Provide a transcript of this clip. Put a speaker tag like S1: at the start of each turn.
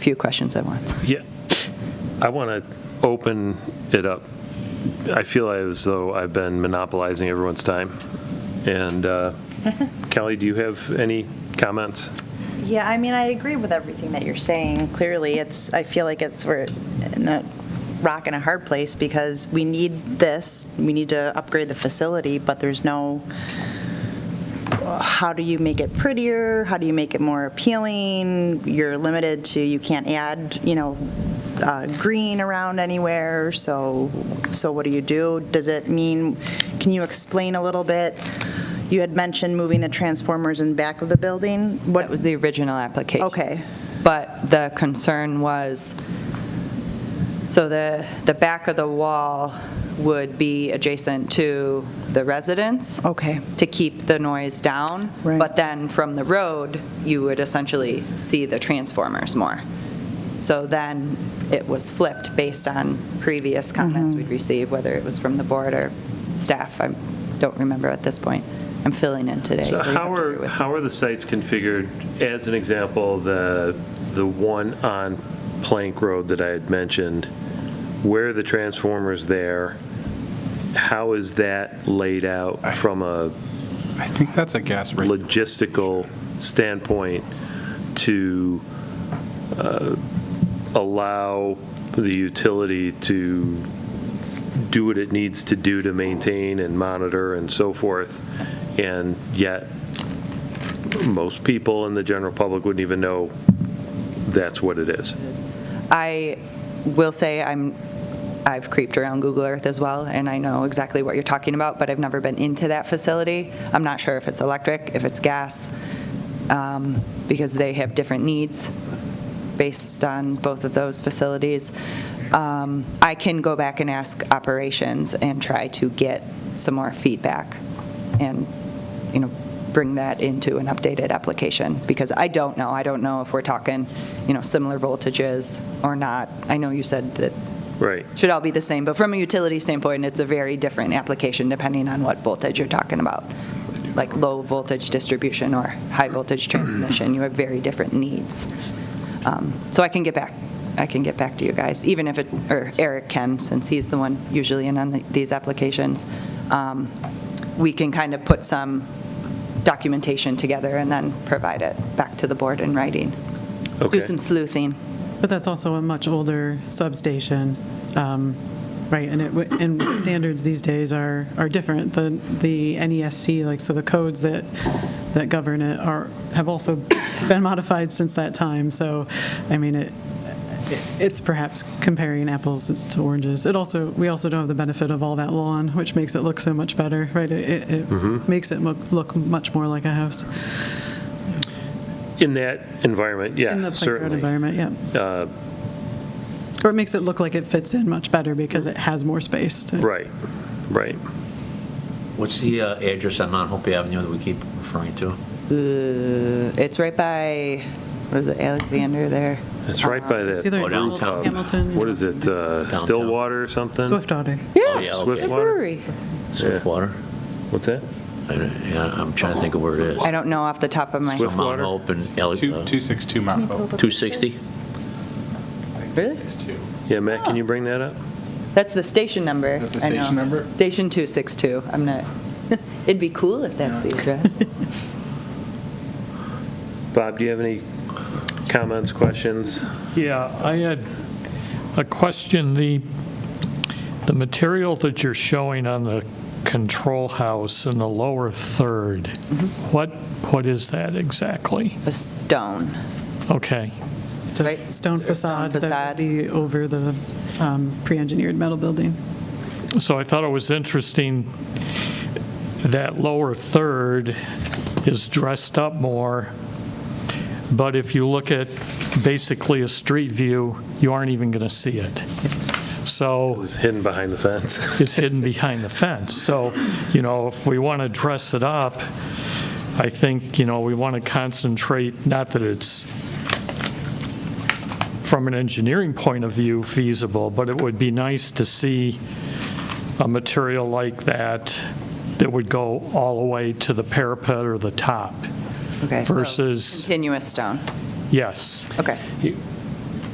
S1: few questions at once.
S2: Yeah, I want to open it up. I feel as though I've been monopolizing everyone's time. And uh, Kelly, do you have any comments?
S3: Yeah, I mean, I agree with everything that you're saying. Clearly, it's, I feel like it's, we're in a rock and a hard place because we need this, we need to upgrade the facility, but there's no, how do you make it prettier? How do you make it more appealing? You're limited to, you can't add, you know, uh, green around anywhere, so, so what do you do? Does it mean, can you explain a little bit? You had mentioned moving the transformers in back of the building. What
S1: That was the original application.
S3: Okay,
S1: But the concern was, so the, the back of the wall would be adjacent to the residence.
S3: okay,
S1: To keep the noise down.
S3: Oh. Right.
S1: But then from the road, you would essentially see the transformers more. So then it was flipped based on previous
S3: Mm-hmm.
S1: comments we'd received, whether it was from the board or staff. I don't remember at this point. I'm filling in today.
S2: So
S1: you have
S2: how
S1: to bear
S2: are,
S1: with me.
S2: how are the sites configured? As an example, the, the one on Plank Road that I had mentioned, where are the transformers there? How is that laid out from a
S4: I think that's a gas rate.
S2: logistical standpoint to uh, allow the utility to do what it needs to do to maintain and monitor and so forth, and yet most people in the general public wouldn't even know that's what it is.
S1: I will say I'm, I've creeped around Google Earth as well, and I know exactly what you're talking about, but I've never been into that facility. I'm not sure if it's electric, if it's gas, um, because they have different needs based on both of those facilities. Um, I can go back and ask operations and try to get some more feedback and, you know, bring that into an updated application, because I don't know. I don't know if we're talking, you know, similar voltages or not. I know you said that
S2: Right.
S1: should all be the same, but from a utility standpoint, it's a very different application depending on what voltage you're talking about. Like low voltage distribution or high voltage transmission, you have very different needs. Um, So I can get back, I can get back to you guys, even if it, or Eric can, since he's the one usually in on the- these applications. Um, We can kind of put some documentation together and then provide it back to the board in writing.
S2: Okay.
S1: Do some sleuthing.
S5: But that's also a much older substation, um, right? And it, w- and standards these days are, are different. The, the NESC, like, so the codes that, that govern it are, have also been modified since that time. So, I mean, it, it's perhaps comparing apples to oranges. It also, we also don't have the benefit of all that lawn, which makes it look so much better, right? It- It, it
S2: Mm-hmm.
S5: makes it look, look much more like a house
S2: In that environment,
S5: in the
S2: yeah,
S5: playground
S2: certainly.
S5: environment, yeah.
S2: Uh,
S5: Or it makes it look like it fits in much better because it has more space. to-
S2: Right, right.
S6: What's the uh, address on Mount Hope Avenue that we keep referring to?
S1: Uh, It's right by, what is it, Alexander there?
S2: It's right by that.
S5: It's either
S6: Oh, downtown.
S5: Hamilton.
S2: What is it, uh,
S6: Downtown.
S2: Stillwater or something?
S5: Swiftwater.
S6: Oh, yeah, okay.
S2: Swiftwater?
S6: Swiftwater?
S2: What's that?
S6: I don't- yeah, I'm trying to think of where it is.
S1: I don't know off the top of my
S2: Swift-
S1: head.
S6: So Mount
S2: Swiftwater?
S6: Hope and Ele-
S4: Two-
S6: uh,
S4: 262 Mount Hope.
S6: 260?
S1: Really?
S4: 262.
S2: Yeah, Matt, can you bring that up?
S1: That's the station number.
S4: Is that the
S1: I know.
S4: station number?
S1: Station 262. I'm not, it'd be cool if that's the address.
S2: Bob, do you have any comments, questions?
S7: Yeah, I had a question. The, the material that you're showing on the control house in the lower third, what, what is that exactly?
S1: A stone.
S7: Okay,
S5: Just a
S1: Right.
S5: Stone
S1: Stone
S5: facade that
S1: facade.
S5: would be over the um, pre-engineered metal building.
S7: so I thought it was interesting that lower third is dressed up more, but if you look at basically a street view, you aren't even going to see it. So.
S2: It's hidden behind the fence.
S7: it's hidden behind the fence. So, you know, if we want to dress it up, I think, you know, we want to concentrate, not that it's, from an engineering point of view, feasible, but it would be nice to see a material like that that would go all the way to the parapet or the top.
S1: Okay. so
S7: Versus-
S1: Continuous stone.
S7: Yes.
S1: Okay.
S2: You-